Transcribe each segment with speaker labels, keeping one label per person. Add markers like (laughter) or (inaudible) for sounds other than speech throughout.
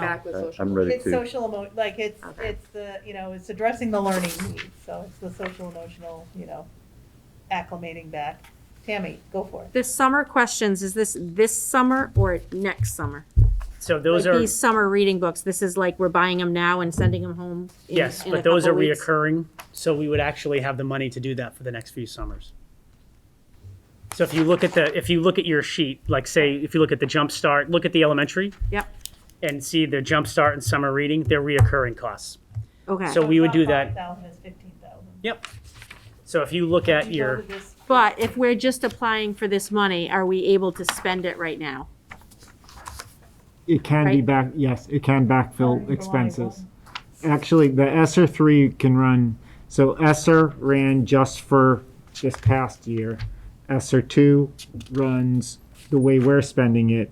Speaker 1: back with social.
Speaker 2: I'm ready
Speaker 3: It's
Speaker 2: to.
Speaker 3: social emo, like it's,
Speaker 1: Okay.
Speaker 3: it's the, you know, it's addressing the learning needs, so it's the social emotional, you know, acclimating back. Tammy, go for it.
Speaker 4: The summer questions, is this this summer or next summer?
Speaker 5: So those
Speaker 4: like
Speaker 5: are,
Speaker 4: these summer reading books, this is like we're buying them now and sending them home. in-
Speaker 5: yes,
Speaker 4: in a
Speaker 5: but those are
Speaker 4: couple weeks.
Speaker 5: reoccurring, so we would actually have the money to do that for the next few summers. So if you look at the, if you look at your sheet, like say, if you look at the jump start, look at the elementary
Speaker 4: Yep.
Speaker 5: and see the jump start and summer reading, they're reoccurring costs.
Speaker 4: Okay.
Speaker 5: So we would do
Speaker 3: Five
Speaker 5: that,
Speaker 3: thousand is fifteen thousand.
Speaker 5: yep. So if you look at your,
Speaker 4: but if we're just applying for this money, are we able to spend it right now?
Speaker 6: It can be
Speaker 4: Right?
Speaker 6: back, yes, it can backfill expenses. Actually, the ESER three can run, so ESER ran just for this past year. ESER two runs the way we're spending it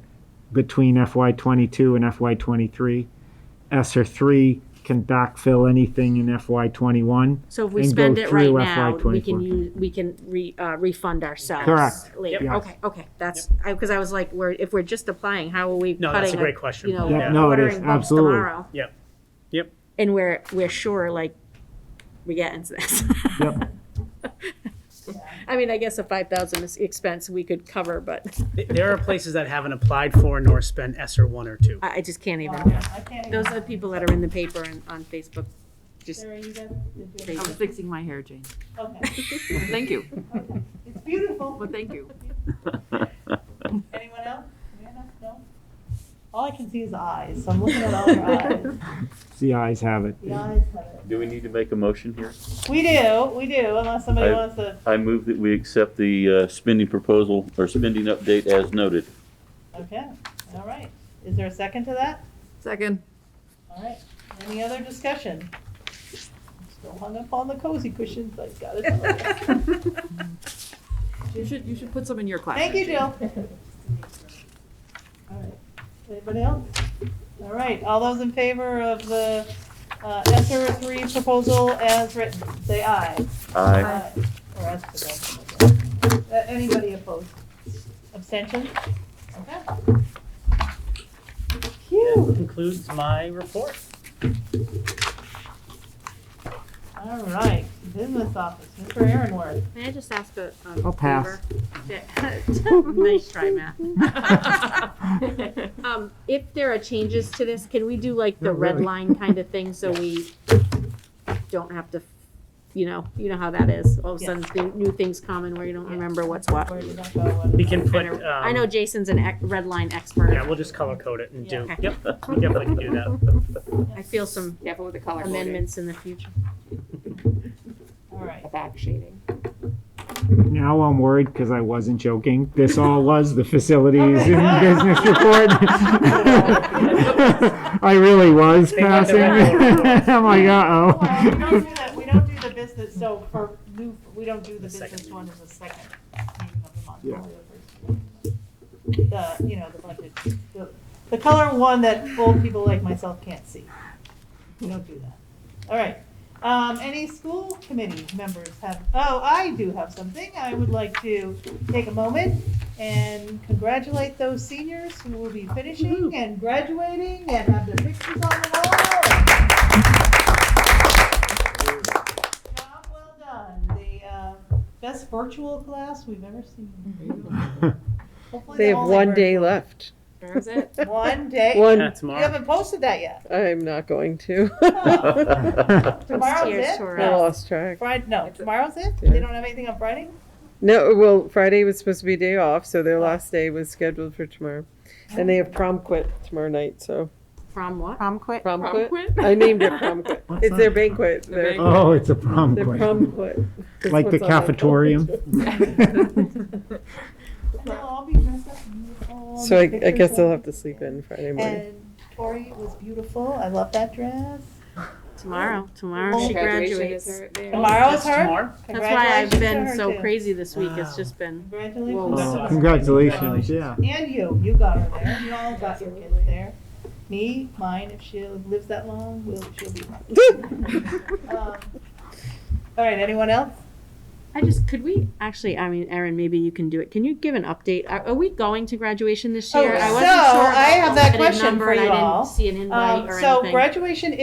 Speaker 6: between FY twenty-two and FY twenty-three. ESER three can backfill anything in FY twenty-one.
Speaker 4: So if we
Speaker 6: And go
Speaker 4: spend it right
Speaker 6: through
Speaker 4: now, we
Speaker 6: FY24.
Speaker 4: can use, we can re, uh, refund ourselves.
Speaker 6: Correct.
Speaker 4: Later.
Speaker 6: Yep.
Speaker 4: Okay, okay, that's, I, cause I was like, we're, if we're just applying, how are we cutting?
Speaker 5: No, that's a great question.
Speaker 4: You know,
Speaker 5: Yeah,
Speaker 6: no, it is,
Speaker 4: ordering books
Speaker 6: absolutely.
Speaker 4: tomorrow.
Speaker 5: yep, yep.
Speaker 4: And we're, we're sure, like, we get into this.
Speaker 6: Yep. (laughs)
Speaker 4: (laughs) I mean, I guess a five thousand is expense we could cover, but
Speaker 5: Th- There are places that haven't applied for nor spent ESER one or two.
Speaker 4: I, I just can't
Speaker 3: Wow,
Speaker 4: even.
Speaker 3: I can't even.
Speaker 4: Those are the people that are in the paper and on Facebook, just,
Speaker 3: Sarah, you got- did
Speaker 4: I
Speaker 3: you-
Speaker 1: I was fixing my hair, Jane.
Speaker 3: Okay,
Speaker 1: Thank you,
Speaker 3: it's beautiful.
Speaker 1: well, thank you.
Speaker 3: Anyone else? Amanda? No? All I can see is eyes, so I'm looking at all your
Speaker 4: (laughs)
Speaker 3: eyes.
Speaker 6: The eyes have it. (laughs)
Speaker 3: The eyes have
Speaker 2: (laughs)
Speaker 3: it.
Speaker 2: Do we need to make a motion here?
Speaker 3: We do, we do, unless somebody
Speaker 2: I-
Speaker 3: wants to,
Speaker 2: I move that we accept the uh, spending proposal or spending update as noted.
Speaker 3: okay, all right. Is there a second to that?
Speaker 1: Second.
Speaker 3: All right, any other discussion? Still hung up on the cozy cushions, I got it.
Speaker 1: You should, (laughs) you should put some in your class.
Speaker 3: Thank you, Jill. All right. Anybody else? All right, all those in favor of the SR three proposal as written, say aye.
Speaker 2: Aye.
Speaker 3: Aye. Or as presented. Uh, Anybody opposed? Abstentions? Okay. Phew.
Speaker 5: That concludes my report.
Speaker 3: All right, business office, Mr. Aaronworth.
Speaker 4: may I just ask a? a
Speaker 6: I'll pass.
Speaker 4: favor? (laughs) Nice try, Matt. Um, if there are changes to this, can we do like the
Speaker 6: Not
Speaker 4: red
Speaker 6: really.
Speaker 4: line kind of thing, so we don't have to, you know, you know how that is, all of a
Speaker 3: Yeah.
Speaker 4: sudden, thi- new things come and where you don't
Speaker 3: Yeah.
Speaker 4: remember what's what.
Speaker 3: Where did that go? What is
Speaker 5: We
Speaker 3: that?
Speaker 5: can put, um.
Speaker 4: I know Jason's an ec- red line expert.
Speaker 5: Yeah, we'll just color code it and do,
Speaker 4: Yeah.
Speaker 5: yep, we definitely can do that.
Speaker 4: I feel some
Speaker 7: Careful with the color coding,
Speaker 4: amendments in the future.
Speaker 3: All right.
Speaker 7: the back shading.
Speaker 6: Now I'm worried because I wasn't joking. This all was the facilities
Speaker 3: Okay.
Speaker 6: and business report. (laughs) I really was
Speaker 5: They got the
Speaker 6: passing.
Speaker 5: red
Speaker 6: (laughs) I'm like,
Speaker 5: Oh.
Speaker 3: Well, we don't
Speaker 6: uh-oh.
Speaker 3: do the, we don't do the business, so for new, we don't do the
Speaker 5: The second
Speaker 3: business one as
Speaker 5: meeting.
Speaker 3: a second meeting of the month.
Speaker 6: Yeah.
Speaker 3: only the first. The, you know, the budget, the, the color one that old people like myself can't see. We don't do that. All right. Um, any school committee members have, oh, I do have something. I would like to take a moment and congratulate those seniors who will be finishing and graduating and have their pictures on the wall. Job well done. The uh, best virtual class we've ever seen. Hopefully
Speaker 8: They have
Speaker 3: all
Speaker 8: one day
Speaker 3: virtual.
Speaker 8: left.
Speaker 4: Is (laughs) it?
Speaker 3: One day.
Speaker 8: (laughs) One,
Speaker 5: Yeah,
Speaker 3: You
Speaker 5: Tomorrow.
Speaker 3: haven't posted that
Speaker 8: (laughs)
Speaker 3: yet.
Speaker 8: I'm not going to. (laughs)
Speaker 3: Tomorrow's
Speaker 4: Tears
Speaker 3: it?
Speaker 4: to her
Speaker 8: I
Speaker 3: No.
Speaker 4: eyes.
Speaker 8: lost track.
Speaker 3: Friday, no, tomorrow's it?
Speaker 8: Yeah.
Speaker 3: They don't have anything on Friday?
Speaker 8: No, well, Friday was supposed to be a day off, so their last day was scheduled for tomorrow. And they have prom quit tomorrow night, so.
Speaker 4: From what?
Speaker 8: Prom quit? Prom
Speaker 7: Prom
Speaker 8: quit?
Speaker 7: quit?
Speaker 8: I
Speaker 3: (laughs)
Speaker 8: named it prom (laughs) quit.
Speaker 6: What's
Speaker 8: It's their
Speaker 6: that?
Speaker 8: banquet. Their
Speaker 7: banquet.
Speaker 6: Oh, it's a prom
Speaker 8: their
Speaker 6: queen.
Speaker 8: prom quit. is
Speaker 6: Like the
Speaker 8: what's on my (laughs)
Speaker 6: cafetorium.
Speaker 3: And They'll all be dressed up in uniform.
Speaker 8: So I, I guess they'll
Speaker 3: they'll
Speaker 8: have to sleep in Friday morning.
Speaker 3: And Tori was beautiful. I love that dress.
Speaker 4: Tomorrow, tomorrow
Speaker 3: Oh.
Speaker 4: she
Speaker 7: Graduation is
Speaker 4: graduates.
Speaker 7: right there.
Speaker 3: Tomorrow is
Speaker 5: That's
Speaker 3: her.
Speaker 5: tomorrow?
Speaker 4: That's why I've
Speaker 3: Congratulations to
Speaker 4: been
Speaker 3: her,
Speaker 4: so
Speaker 3: too.
Speaker 4: crazy this week, it's
Speaker 5: Wow.
Speaker 4: just been,
Speaker 3: Congratulations.
Speaker 5: Whoa.
Speaker 3: to her.
Speaker 6: Congratulations, yeah.
Speaker 3: And you, you got her there. You all got your kids there. Me, mine, if she lives that
Speaker 8: (laughs)
Speaker 3: long, will, she'll be mine. Um, All right, anyone else?
Speaker 4: I just, could we, actually, I mean, Erin, maybe you can do it. Can you give an update? Are, are we going to graduation this
Speaker 3: Oh,
Speaker 4: year? I wasn't
Speaker 3: so
Speaker 4: sure
Speaker 3: I
Speaker 4: about
Speaker 3: have that
Speaker 4: the
Speaker 3: question
Speaker 4: number
Speaker 3: for
Speaker 4: and
Speaker 3: you
Speaker 4: I
Speaker 3: all.
Speaker 4: didn't see an invite
Speaker 3: Um,
Speaker 4: or
Speaker 3: so
Speaker 4: anything.
Speaker 3: graduation